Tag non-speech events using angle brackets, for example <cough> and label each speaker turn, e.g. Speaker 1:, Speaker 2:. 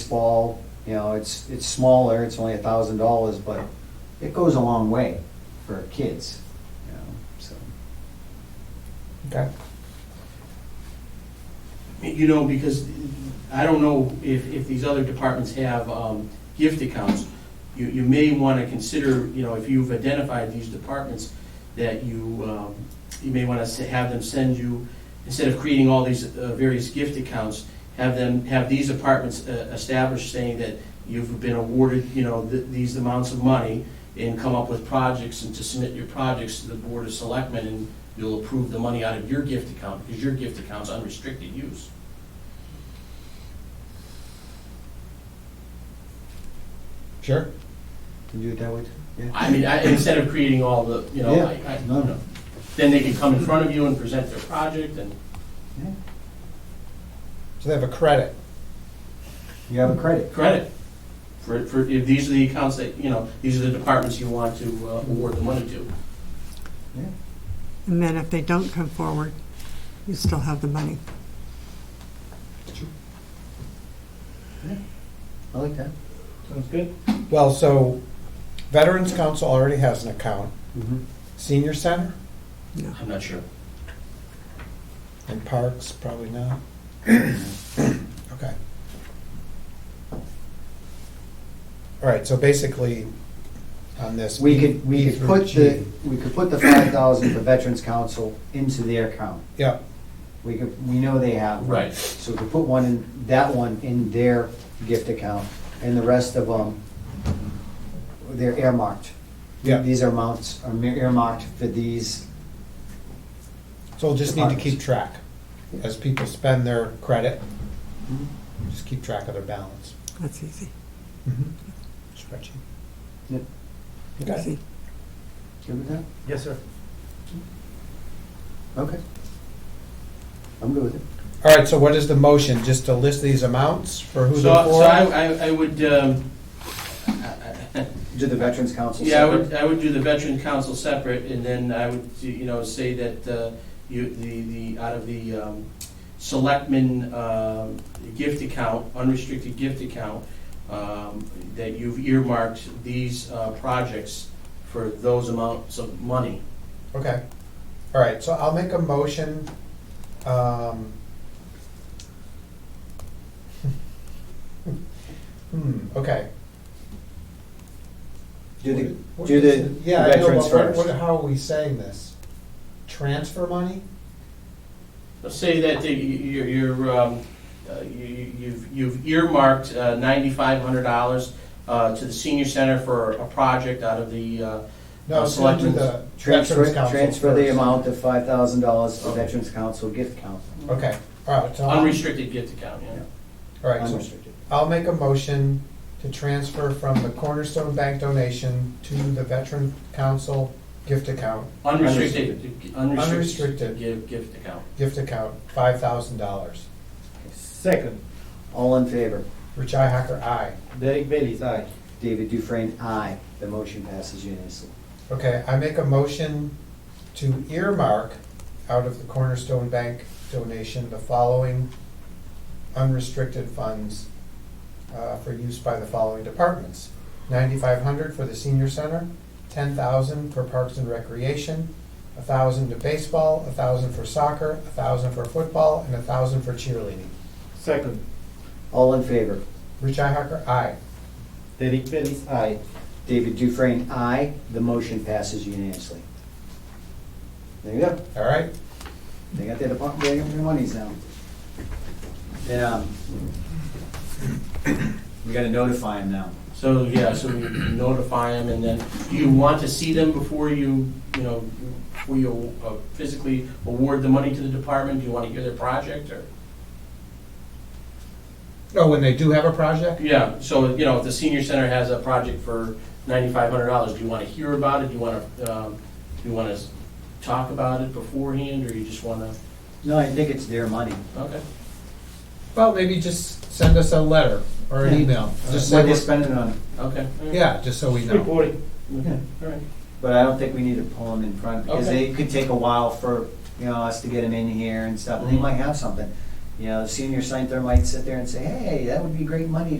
Speaker 1: baseball, you know, it's, it's smaller, it's only a thousand dollars, but it goes a long way for kids, you know, so.
Speaker 2: Okay.
Speaker 3: You know, because I don't know if, if these other departments have um, gift accounts. You, you may want to consider, you know, if you've identified these departments, that you, um, you may want to have them send you, instead of creating all these uh, various gift accounts, have them, have these departments uh, established saying that you've been awarded, you know, th- these amounts of money and come up with projects and to submit your projects to the Board of Selectmen and you'll approve the money out of your gift account because your gift account's unrestricted use.
Speaker 2: Sure.
Speaker 1: Can you do it that way? too? Yeah.
Speaker 3: I mean, I, instead of creating all the, you know, I,
Speaker 1: Yeah,
Speaker 3: I,
Speaker 1: no, no.
Speaker 3: then they could come in front of you and present their project and,
Speaker 1: Yeah.
Speaker 2: So they have a credit.
Speaker 1: You have a credit.
Speaker 3: credit. For, for, if these are the accounts that, you know, these are the departments you want to uh, award the money to.
Speaker 1: Yeah.
Speaker 4: And then if they don't come forward, you still have the money.
Speaker 1: I like that.
Speaker 3: Sounds good.
Speaker 2: Well, so Veterans Council already has an account.
Speaker 3: Mm-hmm.
Speaker 1: Mhm.
Speaker 2: Senior Center
Speaker 4: No.
Speaker 3: I'm not sure.
Speaker 2: and Parks, probably not. <clears throat> Okay. All right, so basically on this.
Speaker 1: We could, we
Speaker 2: B
Speaker 1: could
Speaker 2: through
Speaker 1: put the,
Speaker 2: G.
Speaker 1: we could put the five thousand for Veterans Council into their account.
Speaker 2: Yeah,
Speaker 1: We could, we know they have. one.
Speaker 3: Right.
Speaker 1: So we could put one in, that one in their gift account, and the rest of them, they're earmarked.
Speaker 2: Yeah.
Speaker 1: These are amounts, are earmarked for these,
Speaker 2: so we'll just need to keep
Speaker 1: Departments.
Speaker 2: track. As people spend their credit,
Speaker 1: Mm-hmm.
Speaker 2: just keep track of their balance. Mm-hmm.
Speaker 4: That's easy.
Speaker 2: Spreadsheet.
Speaker 1: Yep.
Speaker 2: Okay.
Speaker 4: Easy.
Speaker 1: good with that? Mm-hmm.
Speaker 2: Yes, sir.
Speaker 1: Okay. I'm good with it.
Speaker 2: All right, so what is the motion? Just to list these amounts for who they're
Speaker 3: So, so
Speaker 2: for?
Speaker 3: I, I- I would, um,
Speaker 1: Do the Veterans Council
Speaker 3: Yeah, I
Speaker 1: separate?
Speaker 3: would, I would do the veteran council separate, and then I would, you know, say that uh, you, the, the, out of the um, selectmen um, gift account, unrestricted gift account, um, that you've earmarked these uh, projects for those amounts of money.
Speaker 2: Okay, all right, so I'll make a motion, um. <laughs> Hmm, okay.
Speaker 1: Do the,
Speaker 2: What-
Speaker 1: do the
Speaker 2: Yeah, I know,
Speaker 1: veterans
Speaker 2: but what-
Speaker 1: first.
Speaker 2: what- How are we saying this? Transfer money?
Speaker 3: So Say that the- you- you're, um, uh, you- you- you've you've earmarked uh, $9,500 uh, to the senior center for a project out of the uh,
Speaker 2: No,
Speaker 3: Uh,
Speaker 2: it's going to the
Speaker 3: selectmen's-
Speaker 1: transfer,
Speaker 2: Veterans Council
Speaker 1: transfer the
Speaker 2: first.
Speaker 1: amount of five thousand dollars to
Speaker 3: Okay.
Speaker 1: Veterans Council gift account,
Speaker 2: Okay, all right, so. I'll-
Speaker 3: unrestricted gift account, yeah.
Speaker 2: All right, so
Speaker 1: unrestricted.
Speaker 2: I'll make a motion to transfer from the Cornerstone Bank donation to the Veteran Council gift account
Speaker 3: Unrestricted,
Speaker 2: Unrestricted.
Speaker 3: unrestricted gift, gift account.
Speaker 2: gift account, five thousand dollars.
Speaker 5: Second,
Speaker 1: All in favor?
Speaker 2: Richi Hacker, aye.
Speaker 5: Derek Bailey's aye.
Speaker 1: David Dufresne, aye. The motion passes unanimously.
Speaker 2: Okay, I make a motion to earmark out of the Cornerstone Bank donation the following unrestricted funds uh, for use by the following departments. Ninety-five hundred for the senior center, ten thousand for parks and recreation, a thousand to baseball, a thousand for soccer, a thousand for football, and a thousand for cheerleading.
Speaker 5: Second,
Speaker 1: All in favor?
Speaker 2: Richi Hacker, aye.
Speaker 5: Derek Bailey's aye.
Speaker 1: David Dufresne, aye. The motion passes unanimously. There you go.
Speaker 2: All right?
Speaker 1: They got their department, they got their monies now. Yeah. We gotta notify them now.
Speaker 3: So, yeah, so we notify them, and then, do you want to see them before you, you know, before you uh, physically award the money to the department? Do you want to hear their project, or?
Speaker 2: Oh, when they do have a project?
Speaker 3: Yeah, so, you know, if the senior center has a project for ninety-five hundred dollars, do you want to hear about it? Do you want to, um, do you want to talk about it beforehand, or you just want to,
Speaker 1: No, I think it's their money.
Speaker 3: okay?
Speaker 2: Well, maybe just send us a letter or an
Speaker 1: Yeah.
Speaker 2: email. Just say
Speaker 1: What they're
Speaker 2: we're-
Speaker 1: spending it on.
Speaker 3: Okay. all right.
Speaker 2: Yeah, just so we know.
Speaker 5: Reporting.
Speaker 3: Okay, all right.
Speaker 1: But I don't think we need to pull them in front, because
Speaker 3: Okay.
Speaker 1: they could take a while for, you know, us to get them in here and stuff, and they
Speaker 3: Mhm.
Speaker 1: might have something. You know, the senior scientist might sit there and say, hey, that would be great money to